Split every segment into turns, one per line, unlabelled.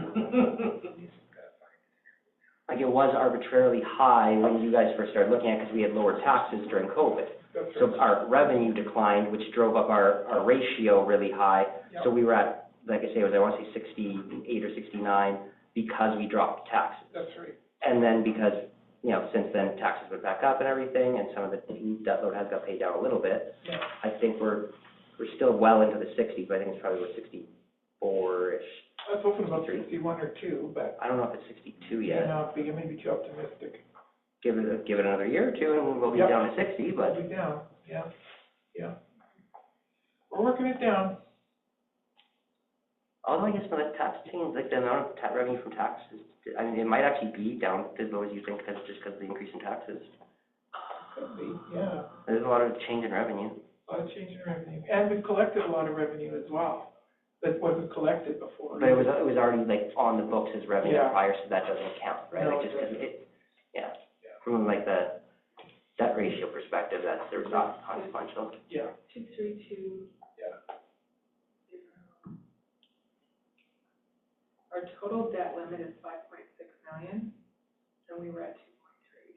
Like it was arbitrarily high when you guys first started looking at, it because we had lower taxes during COVID. So uh, our revenue declined, which drove up our, our ratio really high. So we were at, like I say, it was, I want to say sixty-eight or sixty-nine because we dropped taxes.
That's right.
And then because, you know, since then taxes went back up and everything, and some of the debt load has got paid down a little bit.
Yeah.
I think we're, we're still well into the sixties, but I think it's probably about sixty-four-ish.
I was hoping about sixty-one or two, but
I don't know if it's sixty-two
you
yet.
know, but you may be too optimistic.
Give it, a- give it another year or two and we'll be
Yep.
down to sixty, but.
We'll be down, yeah, yeah. We're working it down.
Although Oh, I guess when the tax change, like the amount of ta revenue from taxes, I mean, it might actually be down as low as you think, cause, just because of the increase in taxes.
Could be, yeah.
There's a lot of change in revenue.
A lot of change in revenue. And we've collected a lot of revenue as well that wasn't collected before.
But it was, it was already like on the books as revenue
Yeah.
prior, so that doesn't count, right?
No, it
Like just 'cause
doesn't.
it, yeah, from like the debt ratio perspective, that's, they're not consequential.
Yeah.
Two, three, two.
Yeah.
Our total debt limit is five point six million, and we were at two point three.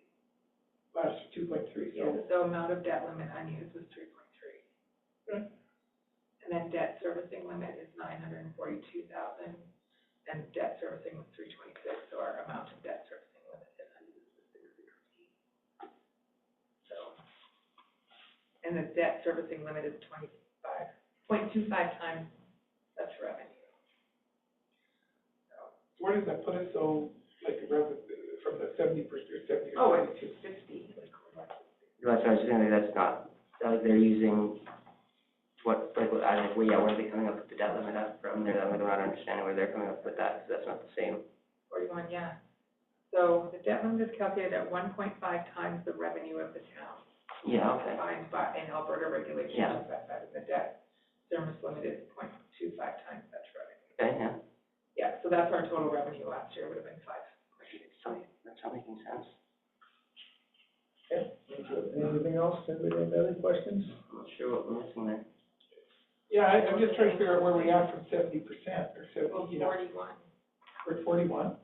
Last two point three, so
So amount of debt limit unused was three point three. Hmm.
Okay.
And then debt servicing limit is nine hundred and forty-two thousand, and debt servicing was three twenty-six, so our amount of debt servicing limit is unused is six sixteen. So, and the debt servicing limit is twenty-five, point two five times such revenue.
where does that put us, so, like, revenue, from the seventy percent, seventy or
Oh, it's
seventy-two?
fifty, like, we're like-
That's what I was saying, that's not, uh, they're using what, like, what- I, like, well, yeah, where are they coming up with the debt limit up from? They're, I'm not understanding where they're coming up with that, 'cause that's not the same.
Forty-one, yeah. So the debt limit is calculated at one point five times the revenue of the town.
Yeah, okay.
Defined by, in Alberta
Yeah.
regulations, that, that is the debt service limit is point two five times such revenue.
Okay, yeah.
Yeah, so that's our total revenue last year would have been five.
So that's not making sense.
Anything else, anybody have any questions?
I'm not sure what we're missing there.
Yeah, I, I'm just trying to figure out where we are from seventy percent, or
Well,
seventy, you know,
forty-one.
we're at forty-one.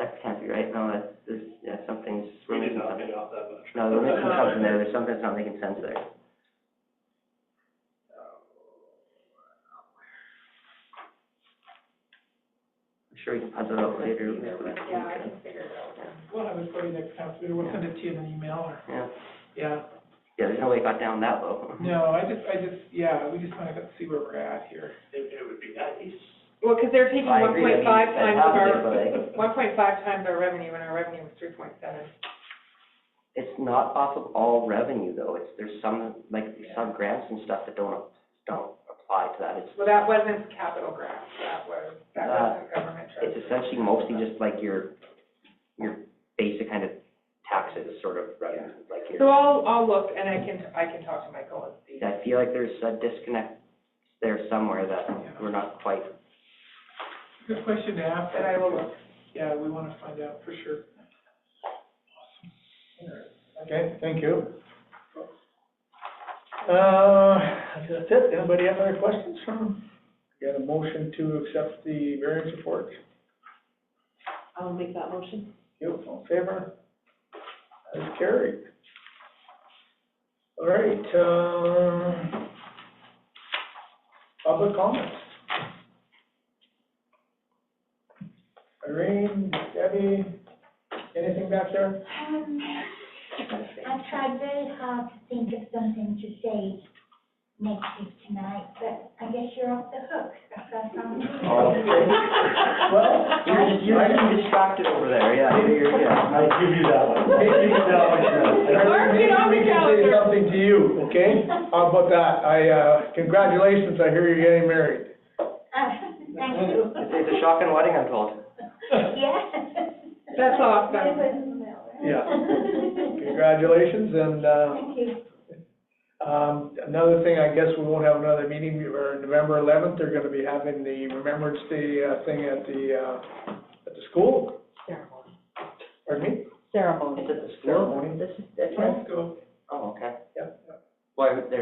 That can't be right. No, that's, this, yeah, something's, we're
We did
missing
not
something.
get off that much.
No, we're missing something there. There's something that's not making sense there. I'm sure we can puzzle it out later.
Yeah, I can figure it out.
We'll have it for you next time, so we'll send it to you in an email, or,
Yeah,
yeah.
yeah, there's no way it got down that low.
No, I just, I just, yeah, we just wanna see where we're at here.
It, it would be nice.
Well, because they're taking
I
one
agree, I mean,
point five
that's
times
how
our,
they play.
one point five times our revenue, and our revenue was three point seven.
It's not off of all revenue though. It's, there's some, like, some grants and stuff that don't, don't apply to that. It's
Well, that wasn't capital grants, that was, that
Uh,
wasn't government trust.
it's essentially mostly just like your, your basic kind of taxes sort of, revenue, like
So
your,
I'll, I'll look, and I can, I can talk to Michael and see.
I feel like there's a disconnect there somewhere that we're not quite,
Good question to ask.
But I will look.
Yeah, we wanna find out for sure.
Okay, thank you. Uh, that's it. Anybody have other questions from? Got a motion to accept the variance report?
I'll make that motion.
You, all in favor? That's carried. All right, um, public comments. Irene, Debbie, anything back there?
Um, I've tried very hard to think of something to say negative tonight, but I guess you're off the hook. That's what I found.
Oh, okay. Well,
you're just, you're getting distracted over there, yeah, you're, you're- yeah.
I give you that one. Give you that one, Chris.
Mark it on the
Maybe we can
calendar.
Say something to you, okay? How about that? I, uh, congratulations, I hear you're getting married.
Uh, Thank you.
It's, it's a shocking wedding, I'm told.
Yeah.
That's awesome.
Yeah. Congratulations, and, uh,
Thank you.
um, another thing, I guess we won't have another meeting, we were November eleventh, they're gonna be having the Remembrance Day, uh, thing at the, uh, at the school,
ceremony.
pardon me?
Ceremony.
It's at the school?
Ceremony.
This is, that's
Let's go.
Oh, okay.
Yep.
Why, they're